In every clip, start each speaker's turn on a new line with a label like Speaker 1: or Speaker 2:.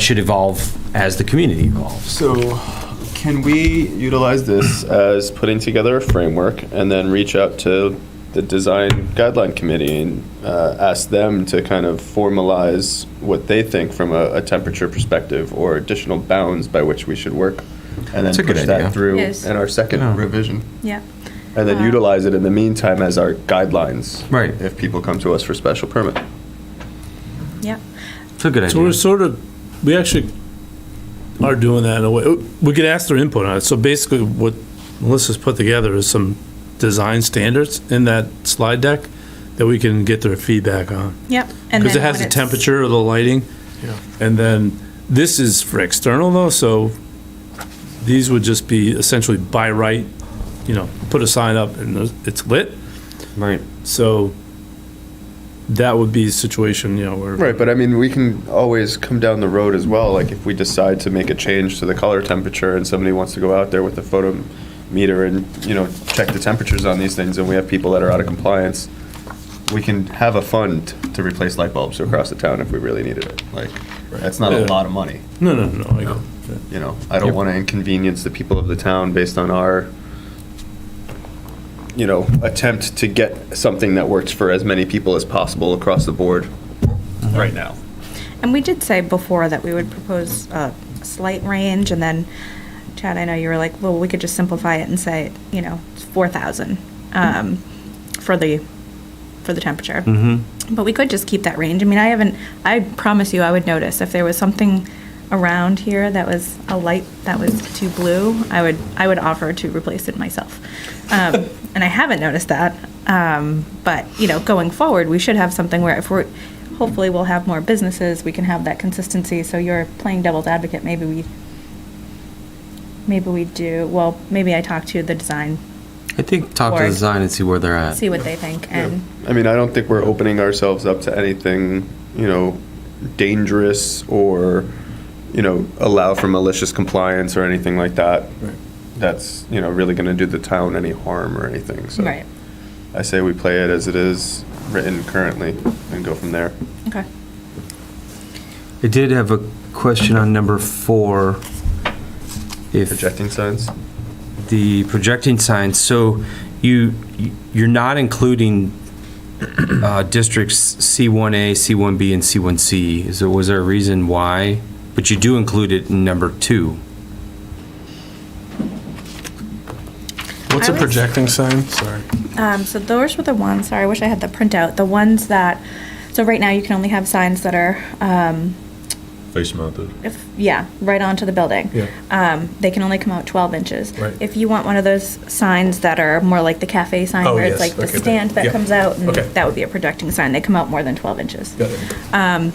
Speaker 1: should evolve as the community evolves.
Speaker 2: So, can we utilize this as putting together a framework and then reach out to the design guideline committee and uh, ask them to kind of formalize what they think from a, a temperature perspective or additional bounds by which we should work, and then
Speaker 1: That's a good
Speaker 2: push
Speaker 1: idea.
Speaker 2: that through
Speaker 3: Yes.
Speaker 2: in our second
Speaker 1: Yeah.
Speaker 2: revision,
Speaker 3: Yeah.
Speaker 2: and then
Speaker 3: Uh,
Speaker 2: utilize it in the meantime as our guidelines.
Speaker 1: Right.
Speaker 2: If people come to us for special permit.
Speaker 3: Yeah.
Speaker 1: It's a good idea.
Speaker 4: So we're sort of, we actually are doing that in a way. Oh, We could ask their input on it. So basically, what Melissa's put together is some design standards in that slide deck that we can get their feedback on.
Speaker 3: Yep. And
Speaker 4: Because it
Speaker 3: then
Speaker 4: has
Speaker 3: when
Speaker 4: the
Speaker 3: it's-
Speaker 4: temperature, the lighting. And then, this is for external though, so these would just be essentially by right, you know, put a sign up and it's lit.
Speaker 1: right.
Speaker 4: So that would be a situation, you know, where.
Speaker 2: Right, but I mean, we can always come down the road as well. Like if we decide to make a change to the color temperature and somebody wants to go out there with a photometer and, you know, check the temperatures on these things and we have people that are out of compliance, we can have a fund to replace light bulbs across the town if we really needed it. Like, that's not a
Speaker 4: Yeah.
Speaker 2: lot of money,
Speaker 4: No, no, no, I go.
Speaker 2: you know? I don't
Speaker 1: Yep.
Speaker 2: want to inconvenience the people of the town based on our, you know, attempt to get something that works for as many people as possible across the board right now.
Speaker 3: And we did say before that we would propose a slight range, and then, Chad, I know you were like, well, we could just simplify it and say, you know, it's four thousand, um, for the, for the temperature. Mm-hmm. But we could just keep that range. I mean, I haven't, I promise you, I would notice if there was something around here that was a light that was too blue, I would, I would offer to replace it myself. Um, and I haven't noticed that. Um, but, you know, going forward, we should have something where if we're, hopefully we'll have more businesses, we can have that consistency, so you're playing devil's advocate, maybe we, maybe we do, well, maybe I talk to the design,
Speaker 1: I think talk to
Speaker 3: Or-
Speaker 1: the design and see where they're at.
Speaker 3: see what they think, and,
Speaker 2: I mean, I don't think we're opening ourselves up to anything, you know, dangerous or, you know, allow for malicious compliance or anything like that. That's, you know, really going to do the town any harm or anything. So
Speaker 3: right,
Speaker 2: I say we play it as it is written currently and go from there.
Speaker 3: okay.
Speaker 1: I did have a question on number four. If
Speaker 2: Projecting signs?
Speaker 1: the projecting signs, so you, you're not including uh, districts C1A, C1B, and C1C. Is there, was there a reason why? But you do include it in number two.
Speaker 5: What's
Speaker 3: I
Speaker 5: a
Speaker 3: was-
Speaker 5: projecting sign? Sorry.
Speaker 3: Um, so those were the ones, sorry, I wish I had the printout, the ones that, so right now you can only have signs that are, um,
Speaker 6: Face mounted.
Speaker 3: if, yeah, right onto the building.
Speaker 5: Yeah.
Speaker 3: Um, they can only come out twelve inches.
Speaker 5: Right.
Speaker 3: If you want one of those signs that are more like the cafe sign,
Speaker 5: Oh,
Speaker 3: where it's
Speaker 5: yes,
Speaker 3: like the
Speaker 5: okay, that-
Speaker 3: stand that
Speaker 5: yeah.
Speaker 3: comes out, and
Speaker 5: Okay.
Speaker 3: that would be a projecting sign, they come out more than twelve inches.
Speaker 5: Got it.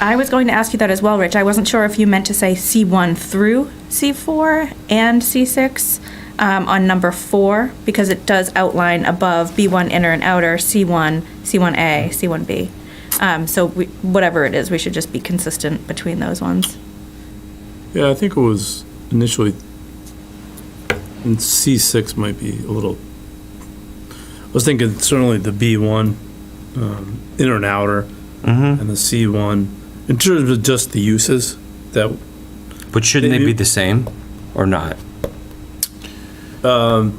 Speaker 3: I was going to ask you that as well, Rich, I wasn't sure if you meant to say C one through C four and C six, um, on number four, because it does outline above B one inner and outer, C one, C one A, C one B. Um, so we, whatever it is, we should just be consistent between those ones.
Speaker 4: Yeah, I think it was initially, and C6 might be a little, I was thinking certainly the B1, um, inner and outer,
Speaker 1: Mm-hmm.
Speaker 4: and the C1, in terms of just the uses, that,
Speaker 1: But shouldn't they
Speaker 4: Maybe-
Speaker 1: be the same or not? Um,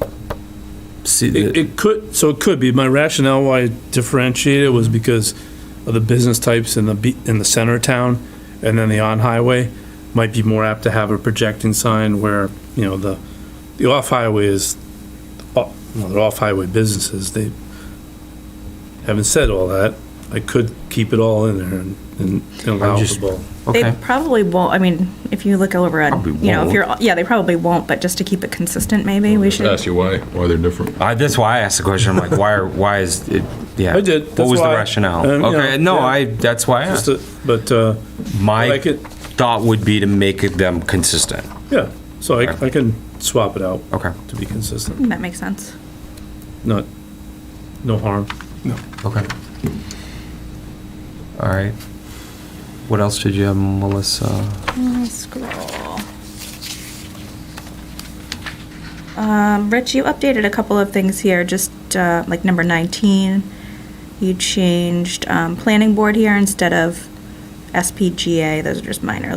Speaker 1: See,
Speaker 4: it
Speaker 1: the-
Speaker 4: it could, so it could be, my rationale why I differentiated was because of the business types in the, B- in the center of town, and then the on-highway might be more apt to have a projecting sign where, you know, the, the off-highway is, oh, you know, they're off-highway businesses, they, having said all that, I could keep it all in there and, and allow
Speaker 1: just-
Speaker 4: the ball.
Speaker 1: okay.
Speaker 3: They probably won't, I mean, if you look over at,
Speaker 1: Probably
Speaker 3: you know, if
Speaker 1: won't.
Speaker 3: you're, yeah, they probably won't, but just to keep it consistent, maybe we should.
Speaker 6: Ask you why, why they're different.
Speaker 1: I, that's why I asked the question. I'm like, why? Are, why is it? Yeah.
Speaker 4: I did.
Speaker 1: What
Speaker 4: That's
Speaker 1: was the
Speaker 4: why-
Speaker 1: rationale?
Speaker 4: Um, you
Speaker 1: okay.
Speaker 4: know,
Speaker 1: no,
Speaker 4: yeah.
Speaker 1: I. That's why. I
Speaker 4: Just
Speaker 1: asked.
Speaker 4: a- But, uh,
Speaker 1: My
Speaker 4: like it,
Speaker 1: thought would be to make them consistent.
Speaker 4: yeah, so I, I can swap it out
Speaker 1: Okay.
Speaker 4: to be consistent,
Speaker 3: That makes sense.
Speaker 4: not, no harm.
Speaker 1: Okay. All right. What else did you have, Melissa?
Speaker 3: Uh, Scroll. Um, Rich, you updated a couple of things here, just, uh, like number nineteen. You changed, um, planning board here instead of SPGA, those are just minor